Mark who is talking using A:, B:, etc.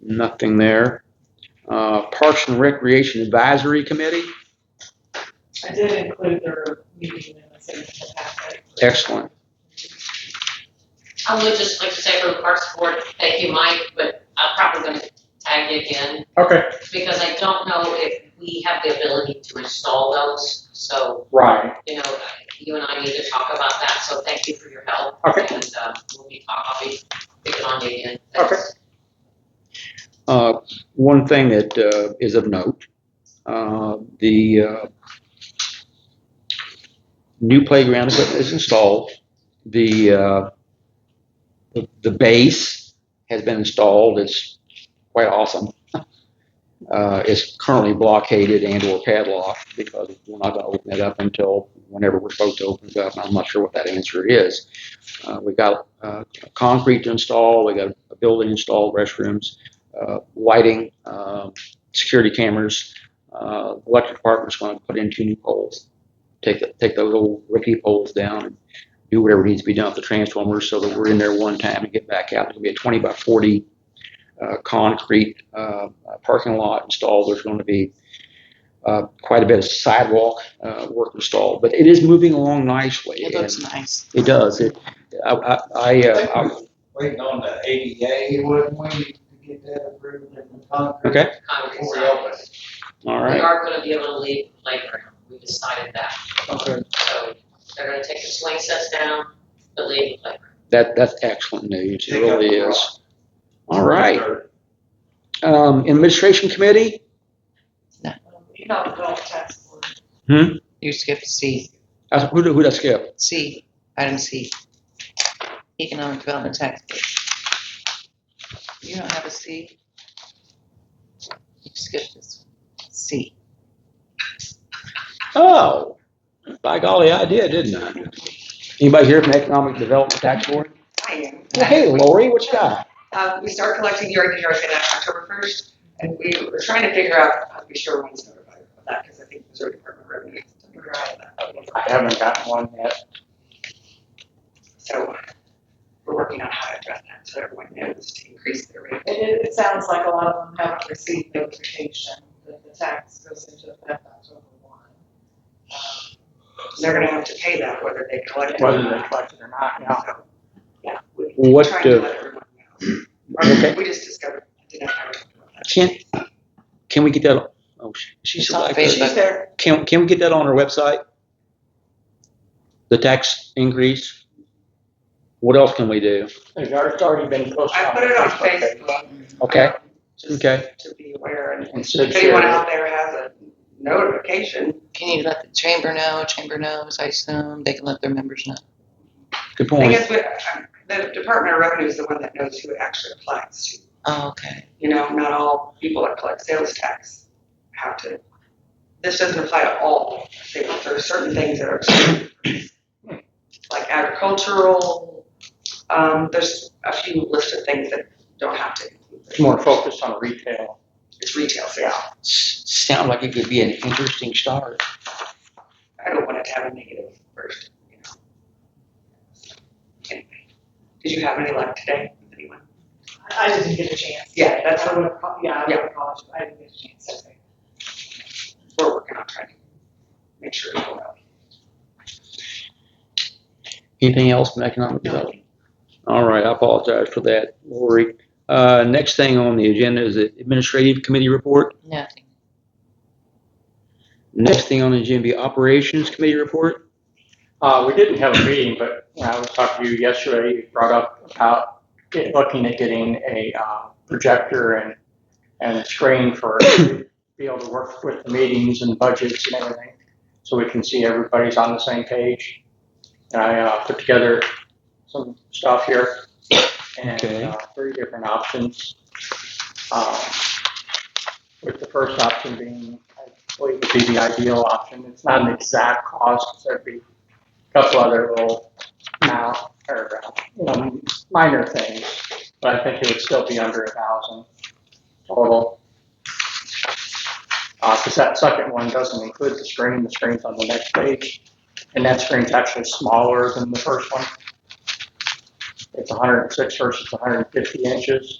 A: Nothing there. Uh, Parks and Recreation Advisory Committee,
B: I did include their meeting minutes in the packet.
A: excellent.
C: I would just like to say for the Parks Board, thank you, Mike, but I'm probably gonna tag you again,
A: Okay.
C: because I don't know if we have the ability to install those, so,
A: Right.
C: you know, you and I need to talk about that, so thank you for your help.
A: Okay.
C: And, um, we'll be, I'll be picking on you again.
A: Okay. Uh, one thing that, uh, is of note, uh, the, uh, new playground equipment is installed. The, uh, the- the base has been installed. It's quite awesome. Uh, it's currently blockaded and or padlocked because we're not gonna open it up until whenever we're supposed to open it up. I'm not sure what that answer is. Uh, we got, uh, concrete to install. We got a building installed, restrooms uh, lighting, um, security cameras. Uh, electric department's going to put in two new poles. Take the, take those old rickety poles down and do whatever needs to be done with the transformers so that we're in there one time and get back out. There's going to be a 20 by 40 uh, concrete uh, parking lot installed. There's going to be uh, quite a bit of sidewalk uh, work installed, but it is moving along nicely.
D: It
A: and
D: looks nice.
A: It does. It. I. I. I, uh, I
E: Waiting on the ADA, wouldn't we, to get that approved in the concrete?
A: Okay.
C: Concrete
E: Before we open
C: sidewalks.
A: all
C: We
A: right.
C: are gonna be able to leave the playground, we decided that,
E: Okay.
C: so they're gonna take the swing sets down, but leave the playground.
A: That that's excellent news. It
E: Take up
A: really
E: the rock.
A: is. All right. Um, administration committee.
B: Um, You know, the adult task force.
D: You skipped C,
A: Uh, Who did, who did I skip?
D: C, item C. Economic Development Tax Base. You don't have a C? You skipped this one. C.
A: Oh, by golly, I did, didn't I? Anybody here from Economic Development Tax Board?
F: I am.
A: Hey, Lori, what you got?
F: Uh, we start collecting year in year in October first, and we were trying to figure out, I'll be sure when it's notified of that, because I think Missouri Department of Revenue is to figure out that.
E: I haven't gotten one yet.
F: So we're working on how to address that, so everyone knows to increase their rate.
B: It, it, it sounds like a lot of them haven't received notification that the tax goes into effect October one. Um,
F: They're gonna have to pay that whether they collect it or
E: Whether they
F: not.
E: collect it or not, yeah.
F: So, Yeah. we- we're
A: What
F: Trying
A: do-
F: to let everyone know.
A: Okay.
F: We just discovered, didn't have.
A: Can, can we get that? Oh, sh- she's
D: It's on
A: like,
D: Facebook.
B: there.
A: can, can we get that on our website? The tax increase? What else can we do?
E: It's already been posted.
F: I put it on
E: Facebook page.
F: Facebook.
A: Okay,
F: um, Just
A: okay.
F: to be aware, and
A: And so
F: if anyone out there has a notification,
D: Can you let the chamber know? Chamber knows, I assume. They can let their members know.
A: Good
F: I
A: point.
F: guess we- uh, the Department of Revenue is the one that knows who it actually applies to.
D: Oh, okay.
F: You know, not all people that collect sales tax have to. This doesn't apply to all sales. There are certain things that are excluded, like agricultural. Um, there's a few listed things that don't have to.
E: It's more focused on retail.
F: It's retail sale.
A: S- Sound like it could be an interesting start.
F: I don't want it to have a negative first, you know. Anyway, did you have any luck today with anyone?
B: I I didn't get a chance.
F: Yeah, that's
B: I
F: what
B: would have, ca- yeah, I would have called you. I didn't get a chance.
F: we're working on trying to make sure it's all out.
A: Anything else from economic development? All right, I apologize for that, Lori. Uh, next thing on the agenda is the administrative committee report.
D: Nothing.
A: Next thing on the agenda, operations committee report.
E: Uh, we didn't have a meeting, but when I was talking to you yesterday, you brought up about get- looking at getting a, uh, projector and, and a screen for, be able to work with the meetings and budgets and everything, so we can see everybody's on the same page. And I, uh, put together some stuff here, and,
A: Okay.
E: uh, three different options. Um, With the first option being, I believe would be the ideal option, it's not an exact cost, so it'd be couple other little now or uh, you know, minor things, but I think it would still be under a thousand total. Uh, because that second one doesn't include the screen, the screen's on the next page, and that screen's actually smaller than the first one. It's hundred and six versus hundred and fifty inches.